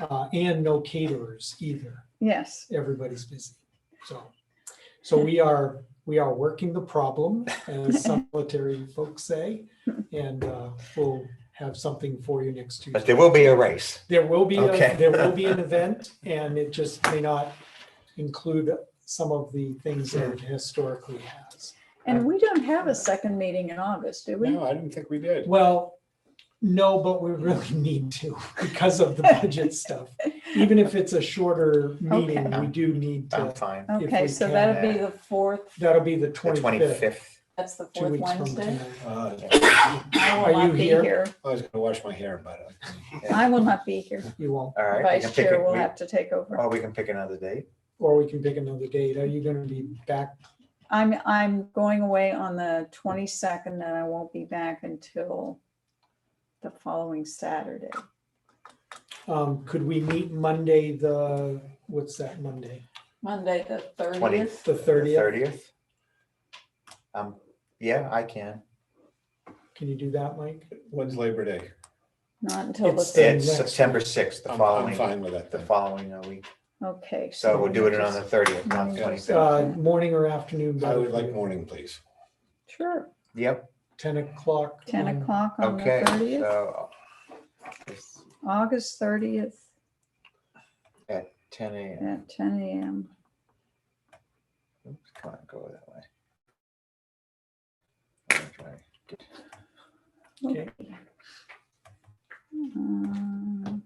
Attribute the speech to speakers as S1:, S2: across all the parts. S1: uh, and no caterers either.
S2: Yes,
S1: Everybody's busy. So, so we are, we are working the problem, as some military folks say, and uh, we'll have something for you next
S3: But
S1: Tuesday.
S3: there will be a race.
S1: There will be, a-
S3: Okay.
S1: there will be an event, and it just may not include some of the things that it historically has.
S2: and we don't have a second meeting in August, do we?
S4: No, I didn't think we did.
S1: Well, no, but we really need to because of the budget stuff. Even if it's a shorter meeting,
S2: Okay.
S1: we do need
S3: I'm
S1: to,
S3: fine.
S1: If
S2: Okay,
S1: we
S2: so
S1: can,
S2: that'd be
S3: uh,
S2: the fourth,
S1: that'll be the
S3: The
S1: twenty-fifth,
S3: twenty-fifth.
S2: that's the
S1: two
S2: fourth
S1: weeks from
S2: Wednesday.
S1: tonight.
S4: Uh,
S2: I
S1: Are
S2: will
S1: you
S2: not be
S1: here?
S2: here.
S4: I was gonna wash my hair, but uh, I-
S2: I will not be here.
S1: You won't,
S3: All right. we can
S2: Vice
S3: pick
S2: Chair
S3: a-
S2: will
S3: we-
S2: have to take over.
S1: Oh.
S3: Or we can pick another date.
S1: or we can pick another date. Are you gonna be back?
S2: I'm, I'm going away on the twenty-second and I won't be back until the following Saturday.
S1: Um, could we meet Monday, the, what's that, Monday?
S2: Monday, the
S3: Twenty.
S2: thirtieth.
S1: The 30th?
S3: Thirtieth. Um, yeah, I can.
S1: Can you do that, Mike?
S4: When's Labor Day?
S2: Not until
S1: It's
S2: the,
S1: the-
S3: It's
S1: next
S3: September sixth, the
S4: I'm, I'm
S3: following,
S4: fine with that
S3: the
S4: then.
S3: following uh, week.
S2: okay.
S3: So we'll do it on the thirtieth, not the
S2: Yeah.
S3: twenty-fifth.
S1: Uh, morning or afternoon?
S4: I
S1: better
S4: would
S1: for
S4: like
S1: you?
S4: morning, please.
S2: Sure,
S3: Yep,
S1: Ten o'clock. Um,
S2: ten
S1: on-
S2: o'clock on the
S3: okay,
S2: thirtieth,
S3: so. it's
S2: August thirtieth
S3: Ten AM.
S2: at ten AM.
S3: Oops, Come on, go that way. Orange way.
S1: Okay.
S2: Okay. Um,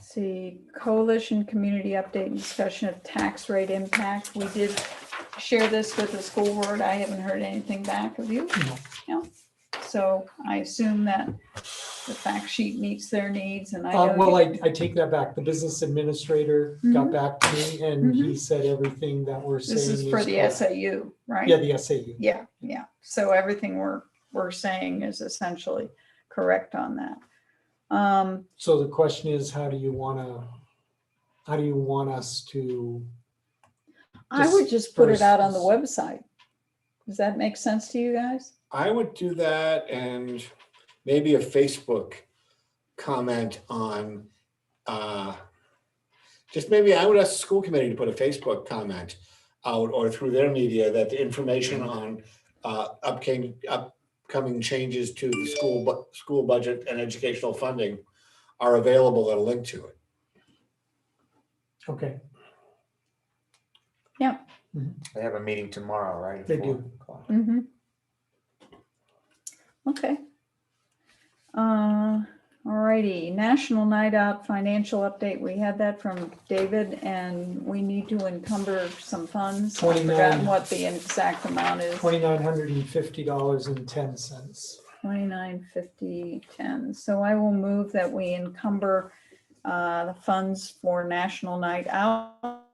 S2: See, coalition community update and discussion of tax rate impact. We did share this with the school board. I haven't heard anything back of you.
S1: No.
S2: No. So I assume that the fact sheet meets their needs and I
S1: Uh,
S2: know
S1: well,
S2: you- Mm-hmm.
S1: I, I take that back. The business administrator got back to me and he said everything that we're saying.
S2: this is for the
S1: correct.
S2: SAU, right?
S1: Yeah, the SAU.
S2: Yeah, yeah. So everything we're, we're saying is essentially correct on that. Um,
S1: So the question is, how do you want to, how do you want us to,
S2: I would just put it out on the
S1: Disperse
S2: website. Does that make sense to you guys?
S4: I would do that and maybe a Facebook comment on, uh, just maybe I would ask the school committee to put a Facebook comment out or through their media that the information
S3: Mm-hmm.
S4: on uh, upcoming, upcoming changes to the school, bu- school budget and educational funding are available at a link to it.
S1: okay,
S3: They have a meeting tomorrow, right? at
S1: They
S3: four
S1: do.
S3: o'clock?
S2: Mm-hmm. Okay. Uh, alrighty, National Night Out Financial Update. We had that from David and we need to encumber some funds. I've
S1: 29.
S2: forgotten what the exact amount is.
S1: twenty-nine hundred and fifty dollars and ten cents.
S2: Twenty-nine, fifty, ten. So I will move that we encumber uh, the funds for National Night Out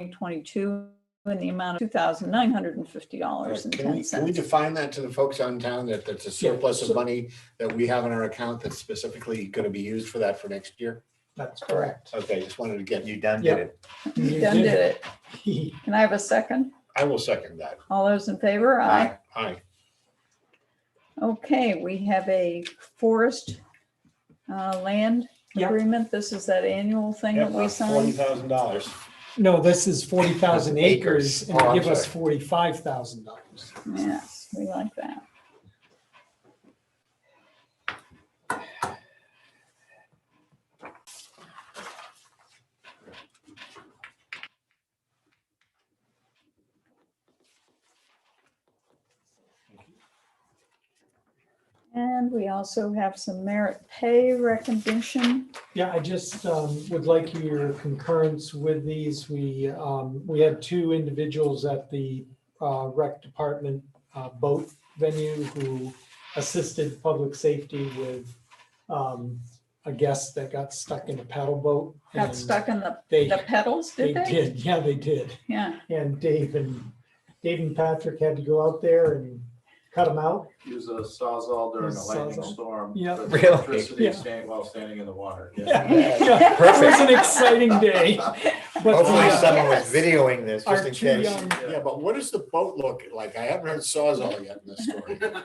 S2: 2022 in the amount of $2,950.10.
S4: Can we, can we define that to the folks out in town that that's a surplus
S1: so-
S4: of money that we have in our account that's specifically going to be used for that for next year?
S1: That's correct.
S4: Okay, just wanted to get you.
S3: You done did
S1: Yeah.
S3: it.
S1: You
S2: Done
S1: did
S2: did it.
S1: it.
S2: Can I have a second?
S4: I will second that.
S2: All those in favor? Aye.
S4: Aye.
S2: Okay, we have a forest uh, land
S1: Yeah.
S2: agreement. This is that annual thing that we
S4: Forty
S2: signed.
S4: thousand dollars.
S1: No, this is forty thousand acres and
S3: Oh, I'm
S1: give us
S3: sorry.
S1: forty-five thousand dollars.
S2: Yes, we like that. And we also have some merit pay recognition.
S1: Yeah, I just um, would like your concurrence with these. We, um, we had two individuals at the uh, rec department uh, boat venue who assisted public safety with um, a guest that got stuck in a paddle boat.
S2: Got
S1: and
S2: stuck in the,
S1: They,
S2: the pedals,
S1: they
S2: did they?
S1: did, yeah, they did.
S2: Yeah,
S1: And Dave and, Dave and Patrick had to go out there and cut them out.
S5: Use a sawzall during
S1: Use a
S5: a lightning
S1: sawzall.
S5: storm.
S1: Yeah.
S5: for
S3: Really?
S5: Electricity
S1: Yeah.
S5: staying while standing in the water.
S1: Yeah,
S2: Yeah.
S1: yeah, It was an exciting day. but
S3: Hopefully
S1: the-
S3: someone
S2: Yes.
S3: was videoing this just
S1: Our
S3: in
S1: two
S3: case.
S1: young
S4: Yeah, but what does the boat look like? I haven't heard Sawzall yet in this story.